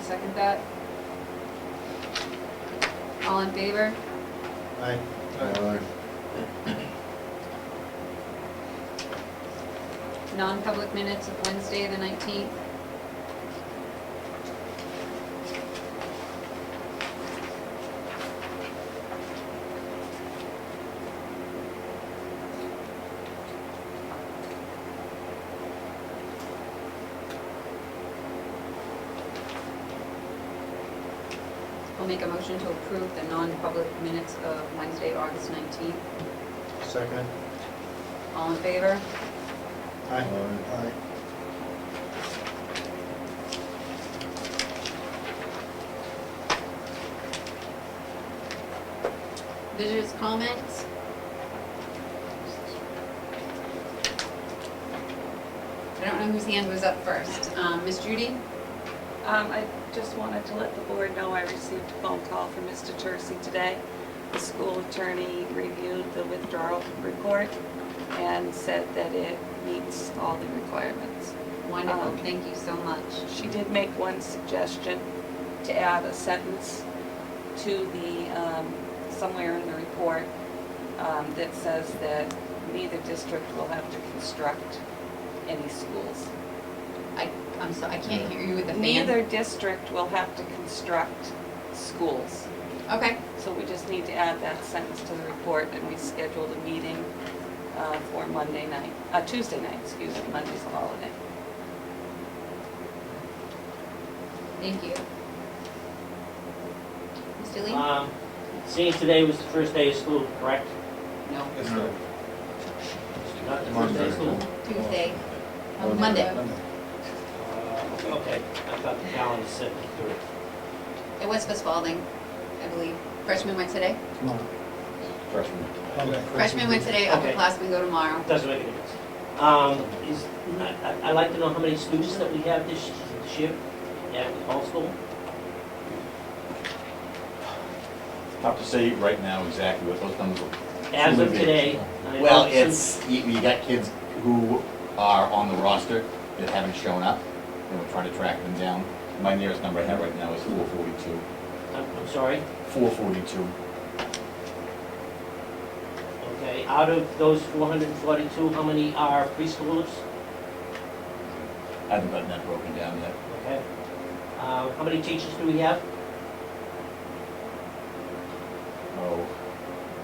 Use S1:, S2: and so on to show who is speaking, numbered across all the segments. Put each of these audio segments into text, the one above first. S1: second that. All in favor?
S2: Aye.
S3: Aye.
S1: Non-public minutes of Wednesday, the 19th. We'll make a motion to approve the non-public minutes of Wednesday, August 19th.
S2: Second.
S1: All in favor?
S2: Aye.
S3: Aye.
S1: Visitors' comments? I don't know whose hand was up first. Um, Ms. Judy?
S4: Um, I just wanted to let the board know I received a phone call from Mr. Tursi today. The school attorney reviewed the withdrawal report and said that it meets all the requirements.
S1: Wonderful,
S4: Um,
S1: thank you so much.
S4: She did make one suggestion to add a sentence to the, um, somewhere in the report um, that says that neither district will have to construct any schools.
S1: I, I'm so, I can't hear you with the fan.
S4: Neither district will have to construct schools.
S1: Okay,
S4: So we just need to add that sentence to the report, and we scheduled a meeting uh, for Monday night, uh, Tuesday night, excuse me, Monday's a holiday.
S1: thank you. Mr. Lee?
S5: Um, Seeing today was the first day of school, correct?
S1: No,
S2: Yes, sir.
S5: Not the first day of school?
S1: Tuesday, Oh, Monday.
S5: Uh, Okay, I thought the calendar said the third.
S1: It was for Spalding, I believe. Freshmen went today?
S3: Freshman.
S1: Freshmen went today,
S5: Okay.
S1: upperclassmen go tomorrow.
S5: Doesn't make any difference. Um, is, I, I- I'd like to know how many students that we have this this year at all school?
S6: Tough to say right now exactly what those numbers are.
S5: As of
S6: Two.
S5: today. I
S6: Well,
S5: know some-
S6: it's, you, you got kids who are on the roster that haven't shown up, and we're trying to track them down. My nearest number I have right now is four forty-two,
S5: I'm, I'm sorry,
S6: four forty-two.
S5: okay. Out of those four hundred and forty-two, how many are preschoolers?
S6: I haven't gotten that broken down yet.
S5: Okay. Uh, how many teachers do we have?
S6: Oh,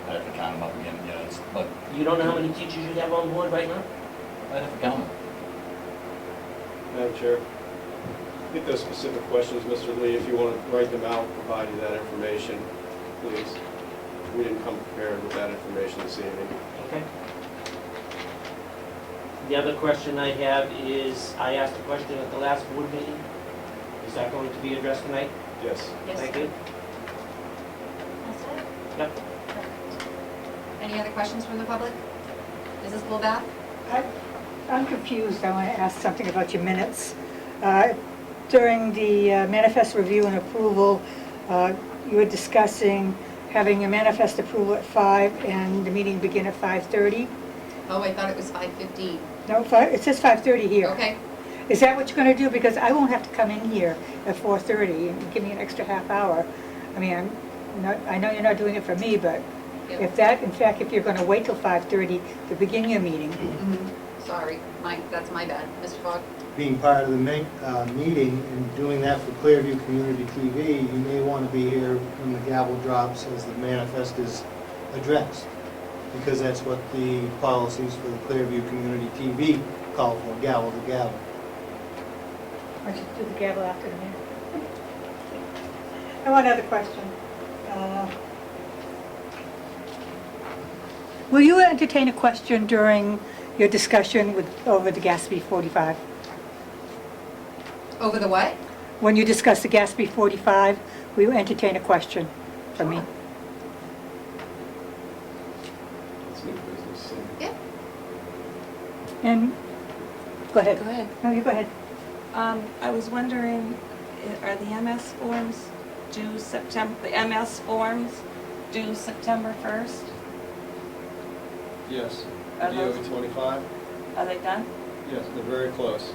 S6: I have to count them up again, yeah, it's, but
S5: You don't know how many teachers you have on board right now?
S6: I have to count them.
S2: Madam Chair, I think those specific questions, Mr. Lee, if you want to write them out, provide you that information, please. We didn't come prepared with that information this evening.
S5: Okay. The other question I have is, I asked a question at the last board meeting. Is that going to be addressed tonight?
S2: Yes.
S5: Thank you.
S1: That's it?
S5: Yep.
S1: Any other questions from the public? Is this Bullbath?
S7: I- I'm confused, I want to ask something about your minutes. Uh, During the uh, manifest review and approval, uh, you were discussing having a manifest approval at five and the meeting begin at 5:30?
S1: Oh, I thought it was 5:15.
S7: No, fi- it says 5:30 here.
S1: Okay,
S7: Is that what you're going to do? Because I won't have to come in here at 4:30 and give me an extra half hour. I mean, I'm not- I know you're not doing it for me, but
S1: Yep.
S7: if that, in fact, if you're going to wait till 5:30 to begin your meeting,
S1: Mhm. sorry, my, that's my bad. Mr. Fogg?
S8: being part of the ma- uh, meeting and doing that for Clearview Community TV, you may want to be here when the gavel drops as the manifest is addressed, because that's what the policies for the Clearview Community TV call for, gavel to gavel.
S7: Why don't you do the gavel after the minute? I have one other question. Uh, Will you entertain a question during your discussion with, over the Gatsby 45?
S1: Over the what?
S7: When you discuss the Gatsby 45, will you entertain a question for me?
S2: It's new business. so-
S1: Yeah.
S7: And, go ahead.
S4: ahead.
S7: No, you go ahead.
S4: Um, I was wondering, i- are the MS forms due September, the MS forms due September 1st?
S2: Yes.
S4: Are
S2: DOE
S4: those-
S2: 25?
S4: Are they done?
S2: Yes, they're very close.